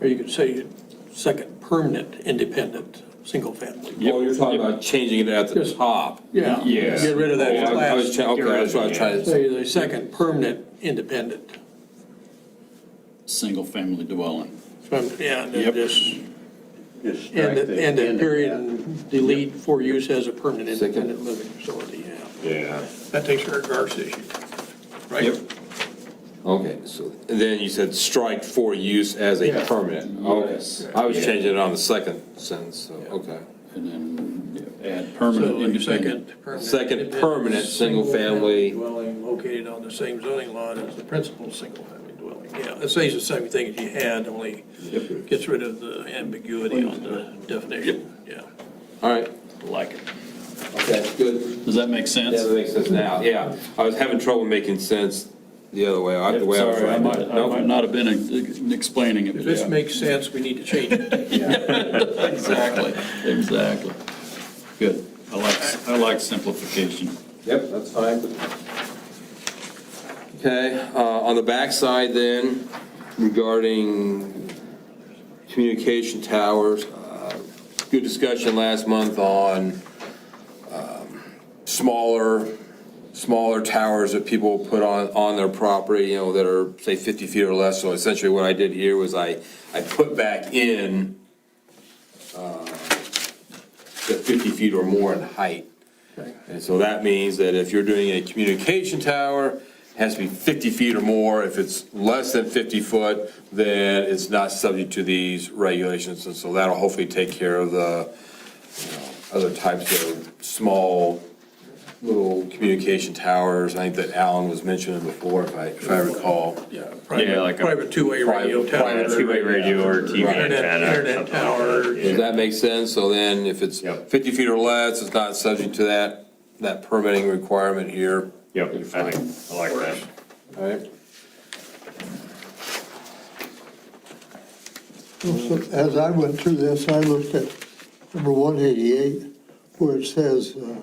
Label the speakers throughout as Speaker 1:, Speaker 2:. Speaker 1: Or you could say second permanent independent, single family.
Speaker 2: Oh, you're talking about changing it at the
Speaker 1: Yes.
Speaker 2: top.
Speaker 1: Yeah.
Speaker 2: Yeah.
Speaker 1: Get rid of that
Speaker 2: Oh, I- I
Speaker 1: class.
Speaker 2: was try- Okay, that's what I was trying to say.
Speaker 1: Say the second permanent independent.
Speaker 3: single-family dwelling.
Speaker 1: So, I'm- Yeah, and then
Speaker 3: Yep.
Speaker 1: just,
Speaker 4: Just
Speaker 1: and,
Speaker 4: strike
Speaker 1: the-
Speaker 4: the
Speaker 1: and the
Speaker 4: end of
Speaker 1: period
Speaker 4: that.
Speaker 1: and delete for use as a permanent
Speaker 4: Second.
Speaker 1: independent living facility, yeah.
Speaker 2: Yeah.
Speaker 1: That takes care of Garth's issue,
Speaker 2: Yep.
Speaker 1: right?
Speaker 4: Okay, so,
Speaker 2: And then you said strike for use as a
Speaker 1: Yeah.
Speaker 2: permanent. Okay.
Speaker 3: Yes.
Speaker 2: I was changing it on the second sentence, so, okay.
Speaker 3: And then add
Speaker 1: So
Speaker 3: permanent
Speaker 1: like
Speaker 3: independent.
Speaker 1: second. permanent
Speaker 2: Second
Speaker 1: independent
Speaker 2: permanent single-family-
Speaker 1: single-family Dwelling located on the same zoning lot as the principal single-family dwelling. Yeah, it says the same thing as you had, only gets rid of the ambiguity on the definition, yeah.
Speaker 2: All right,
Speaker 3: Like it.
Speaker 2: okay, good.
Speaker 3: Does that make sense?
Speaker 2: Yeah, that makes sense now, yeah. I was having trouble making sense the other way, I- the way I was
Speaker 3: Sorry, I
Speaker 2: writing
Speaker 3: might,
Speaker 2: it.
Speaker 3: I might
Speaker 2: Nope.
Speaker 3: not have been uh, explaining it.
Speaker 1: If this makes sense, we need to change it.
Speaker 3: Exactly, exactly. Good. I like, I like simplification.
Speaker 2: Yep, that's fine. Okay, uh, on the backside then, regarding communication towers, uh, good discussion last month on um, smaller, smaller towers that people put on, on their property, you know, that are, say, 50 feet or less. So essentially what I did here was I, I put back in uh, the 50 feet or more in height. And so that means that if you're doing a communication tower, it has to be 50 feet or more. If it's less than 50 foot, then it's not subject to these regulations. And so that'll hopefully take care of the, you know, other types of small little communication towers. I think that Alan was mentioning before, if I, if I recall.
Speaker 1: Yeah,
Speaker 5: Yeah,
Speaker 1: private,
Speaker 5: like a-
Speaker 1: private two-way radio
Speaker 2: Private-
Speaker 1: tower.
Speaker 2: private
Speaker 5: two-way radio or TV
Speaker 2: Right.
Speaker 1: Internet-
Speaker 5: antenna. or
Speaker 1: internet
Speaker 5: something like
Speaker 1: tower.
Speaker 5: that.
Speaker 2: Does
Speaker 5: Yeah.
Speaker 2: that make sense? So then if it's
Speaker 5: Yep.
Speaker 2: 50 feet or less, it's not subject to that, that permitting requirement here.
Speaker 5: Yep, I think- I like that.
Speaker 2: All right?
Speaker 6: Well, so As I went through this, I looked at number 188, where it says uh,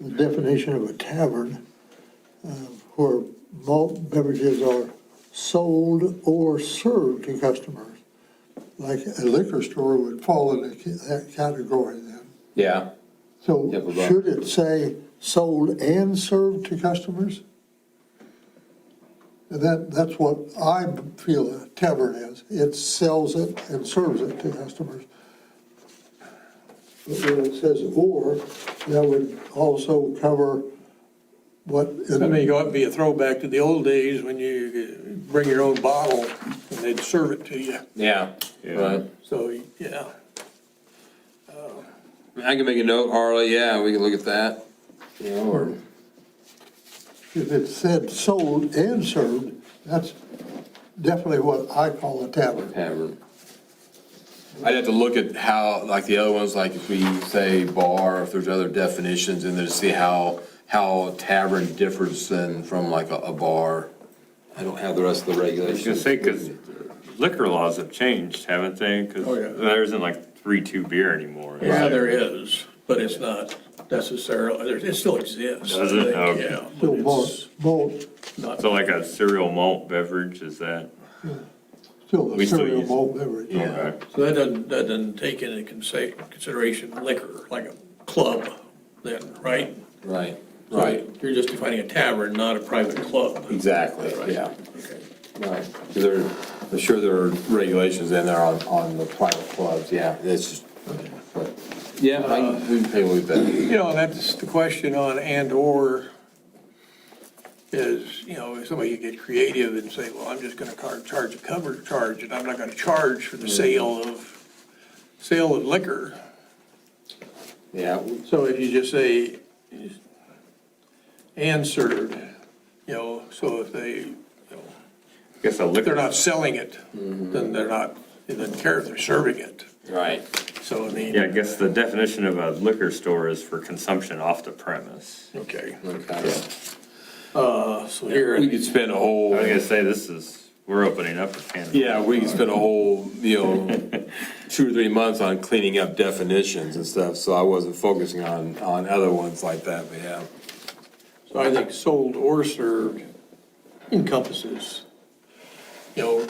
Speaker 6: the definition of a tavern, uh, where malt beverages are sold or served to customers. Like a liquor store would fall into ca- that category then.
Speaker 2: Yeah.
Speaker 6: So
Speaker 2: Yeah, but-
Speaker 6: should it say sold and served to customers? And that, that's what I feel a tavern is. It sells it and serves it to customers. But when it says or, that would also cover what.
Speaker 1: I mean, you ought to be a throwback to the old days when you uh, bring your own bottle and they'd serve it to you.
Speaker 2: Yeah. Right.
Speaker 1: So, yeah,
Speaker 2: I can make a note, Arla, yeah, we can look at that. You know, or,
Speaker 6: If it said sold and served, that's definitely what I call a tavern.
Speaker 2: tavern. I'd have to look at how, like the other ones, like if we say bar, if there's other definitions in there to see how, how tavern differs than from like a, a bar. I don't have the rest of the
Speaker 5: I was gonna
Speaker 2: regulations.
Speaker 5: say, because liquor laws have changed, haven't they? Because
Speaker 1: Oh, yeah.
Speaker 5: there isn't like three, two beer anymore. is
Speaker 1: yeah, there is, but it's not necessarily, there- it still exists. I
Speaker 5: Does it?
Speaker 1: think,
Speaker 5: Okay.
Speaker 1: Yeah, but
Speaker 6: Still
Speaker 1: it's
Speaker 6: malt, malt,
Speaker 1: not-
Speaker 5: So like a cereal malt beverage, is that?
Speaker 6: still a
Speaker 5: We still
Speaker 6: cereal
Speaker 5: use-
Speaker 6: malt beverage.
Speaker 5: Okay.
Speaker 1: So that doesn't, that doesn't take into consi- consideration liquor, like a club then, right?
Speaker 2: Right, right,
Speaker 1: You're just defining a tavern, not a private club.
Speaker 2: exactly,
Speaker 1: Right.
Speaker 2: yeah.
Speaker 1: Okay.
Speaker 2: Right, 'Cause there, I'm sure there are regulations in there on, on the private clubs, yeah, that's just, but, yeah, I can we can pay with that.
Speaker 1: You know, that's the question on and/or is, you know, if somebody could get creative and say, well, I'm just going to charge a cover charge, and I'm not going to charge for the
Speaker 2: Mm.
Speaker 1: sale of, sale of liquor.
Speaker 2: Yeah,
Speaker 1: So if you just say, and served, you know, so if they, you know,
Speaker 5: I guess a
Speaker 1: if they're
Speaker 5: liquor,
Speaker 1: not selling it, then they're not, they don't care if they're serving it.
Speaker 2: right.
Speaker 1: So I
Speaker 5: yeah, I
Speaker 1: mean,
Speaker 5: guess the definition of a liquor store is for consumption off the premise.
Speaker 1: okay,
Speaker 2: Okay.
Speaker 1: Uh, so here.
Speaker 2: We could spend a
Speaker 5: I
Speaker 2: whole,
Speaker 5: was gonna say, this is, we're opening up a can. of-
Speaker 2: yeah, we could spend a whole, you know, two or three months on cleaning up definitions and stuff, so I wasn't focusing on, on other ones like that, but yeah.
Speaker 1: So I think sold or served encompasses, you know,